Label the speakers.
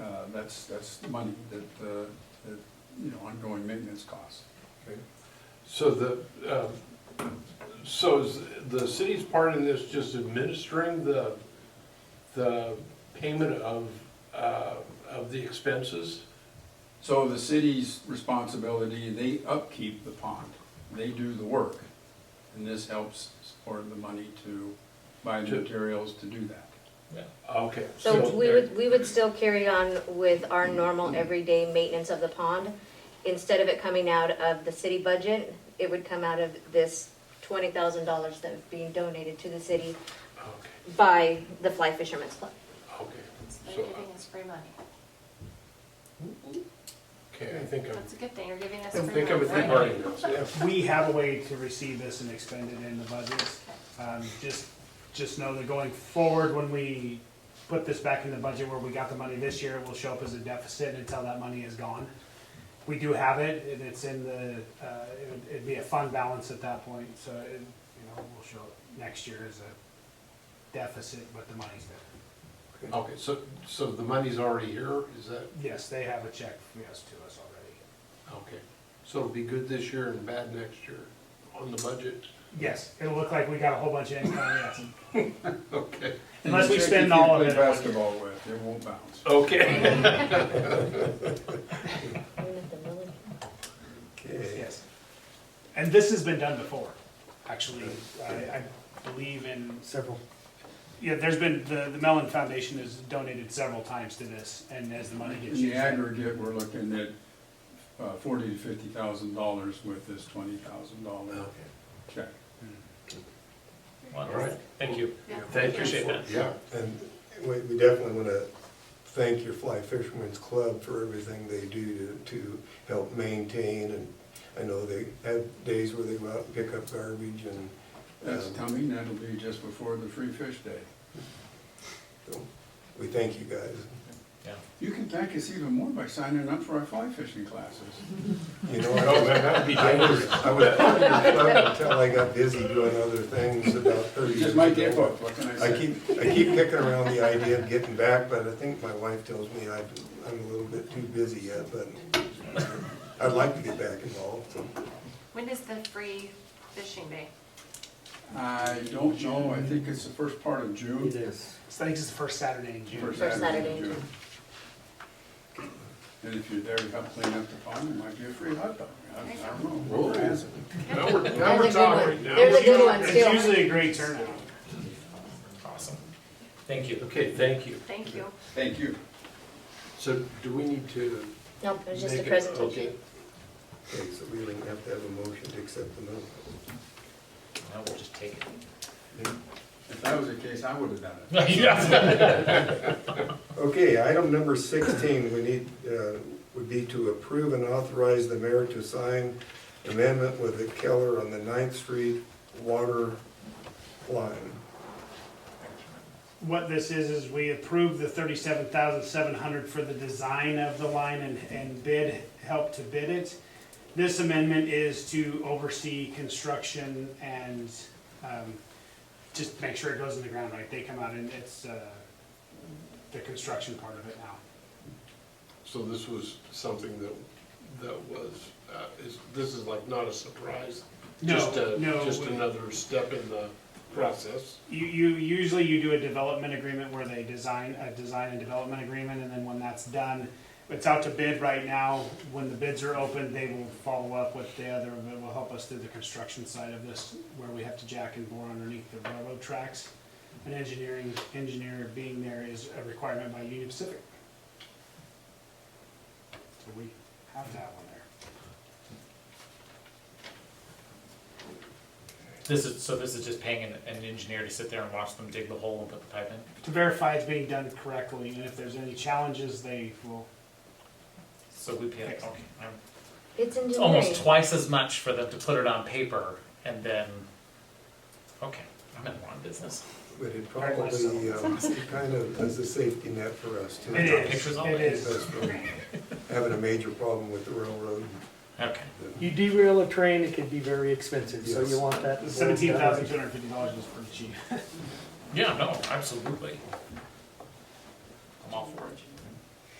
Speaker 1: Uh, that's, that's the money that, uh, that, you know, ongoing maintenance costs.
Speaker 2: Okay. So the, uh, so is the city's part in this just administering the, the payment of, uh, of the expenses?
Speaker 1: So the city's responsibility, they upkeep the pond, they do the work. And this helps support the money to buy the
Speaker 2: To-
Speaker 1: materials to do that.
Speaker 2: Okay.
Speaker 3: So we would, we would still carry on with our normal everyday maintenance of the pond. Instead of it coming out of the city budget, it would come out of this twenty thousand dollars that was being donated to the city
Speaker 2: Okay,
Speaker 3: by the Fly Fisherman's Club.
Speaker 2: okay,
Speaker 4: You're
Speaker 2: So-
Speaker 4: giving us free money.
Speaker 2: okay, I think I'm,
Speaker 4: That's a good thing, you're giving us
Speaker 2: I
Speaker 4: free money.
Speaker 2: think I'm a
Speaker 4: right?
Speaker 2: third party now, yeah.
Speaker 5: We have a way to receive this and expend it in the budgets. Um, just, just know that going forward, when we put this back in the budget where we got the money this year, it will show up as a deficit until that money is gone. We do have it, and it's in the, uh, it would- it'd be a fund balance at that point, so it, you know, we'll show it next year as a deficit, but the money's there.
Speaker 2: Okay, so, so the money's already here, is that,
Speaker 5: Yes, they have a check, yes, to us already.
Speaker 2: okay. So it'll be good this year and bad next year on the budget?
Speaker 5: Yes, it'll look like we got a whole bunch of income, yes.
Speaker 2: Okay.
Speaker 1: And
Speaker 5: Unless
Speaker 1: the
Speaker 5: we
Speaker 1: chick
Speaker 5: spend all of
Speaker 1: You
Speaker 5: it. Oh,
Speaker 1: play basketball with, it won't bounce.
Speaker 2: Okay.
Speaker 5: Yes. And this has been done before, actually, I, I believe in. Several. Yeah, there's been, the, the Mellon Foundation has donated several times to this, and as the money
Speaker 1: In
Speaker 5: gets
Speaker 1: the
Speaker 5: used.
Speaker 1: aggregate, we're looking at uh, forty to fifty thousand dollars with this twenty thousand dollar
Speaker 2: Okay.
Speaker 1: check.
Speaker 5: Hmm.
Speaker 2: All right.
Speaker 6: Thank you.
Speaker 4: Yeah.
Speaker 6: Thank you. Appreciate that.
Speaker 2: Yeah,
Speaker 7: And we, we definitely want to thank your Fly Fishermen's Club for everything they do to, to help maintain. And I know they have days where they go out and pick up garbage and,
Speaker 1: That's
Speaker 7: um,
Speaker 1: coming, that'll be just before the free fish day.
Speaker 7: so we thank you guys.
Speaker 1: You can thank us even more by signing up for our fly fishing classes.
Speaker 7: You know,
Speaker 2: Oh,
Speaker 7: I was,
Speaker 2: that'd be
Speaker 7: I was, I was part of your club until I got busy doing other things about thirty
Speaker 1: It's just
Speaker 7: years ago.
Speaker 1: my gift, what can I
Speaker 7: I
Speaker 1: say?
Speaker 7: keep, I keep kicking around the idea of getting back, but I think my wife tells me I've, I'm a little bit too busy yet, but I'd like to get back involved, so.
Speaker 4: When is the free fishing day?
Speaker 1: I don't know, I think it's the first part of June.
Speaker 8: is.
Speaker 5: So I think it's the first Saturday in June.
Speaker 1: First
Speaker 3: First
Speaker 1: Saturday
Speaker 3: Saturday
Speaker 1: in
Speaker 3: in
Speaker 1: June. And if you're there to help clean up the pond, it might be a free hot dog. I I don't know.
Speaker 2: Whoa.
Speaker 1: We'll ask.
Speaker 2: Now we're, now
Speaker 3: That's
Speaker 2: we're
Speaker 3: a good
Speaker 2: talking
Speaker 3: one.
Speaker 2: right now.
Speaker 3: There's a good one
Speaker 5: It's
Speaker 3: still.
Speaker 5: usually a great turnout.
Speaker 6: Awesome. Thank you.
Speaker 2: Okay, thank you.
Speaker 4: Thank you.
Speaker 1: Thank you.
Speaker 2: So do we need to?
Speaker 3: No, it was just a
Speaker 2: make
Speaker 3: presentation.
Speaker 2: okay.
Speaker 7: Okay, so we don't have to have a motion to accept the minutes.
Speaker 6: Now we'll just take
Speaker 1: If that was the case, I would have done it.
Speaker 6: it. Yes.
Speaker 7: Okay, item number sixteen, we need, uh, would be to approve and authorize the mayor to sign amendment with the Keller on the Ninth Street water line.
Speaker 5: What this is, is we approve the thirty-seven thousand seven hundred for the design of the line and, and bid, help to bid it. This amendment is to oversee construction and, um, just make sure it goes in the ground right. They come out and it's, uh, the construction part of it now.
Speaker 2: So this was something that, that was, uh, is, this is like not a surprise? Just
Speaker 5: No,
Speaker 2: a-
Speaker 5: no.
Speaker 2: Just another step in the process?
Speaker 5: You, you, usually you do a development agreement where they design, a design and development agreement, and then when that's done, it's out to bid right now, when the bids are open, they will follow up with the other, that will help us through the construction side of this, where we have to jack and bore underneath the railroad tracks. An engineering, engineer being there is a requirement by Union Pacific. So we have that one there.
Speaker 6: This is, so this is just paying an, an engineer to sit there and watch them dig the hole and put the pipe in?
Speaker 5: To verify it's being done correctly, and if there's any challenges, they will,
Speaker 6: So we pay, okay. I'm-
Speaker 3: It's
Speaker 6: It's
Speaker 3: engineering.
Speaker 6: almost twice as much for them to put it on paper and then, okay, I'm in the wrong business.
Speaker 7: But it
Speaker 5: Very much
Speaker 7: probably, um, it kind of is a safety net for us too.
Speaker 5: it is,
Speaker 6: Pictures on
Speaker 5: it
Speaker 6: it.
Speaker 5: is.
Speaker 7: That's from Having a major problem with the railroad.
Speaker 6: Okay.
Speaker 8: You derail a train, it could be very expensive, so you
Speaker 7: Yes.
Speaker 8: want that.
Speaker 5: Seventeen thousand two hundred fifty dollars is pretty cheap.
Speaker 6: Yeah, no, absolutely.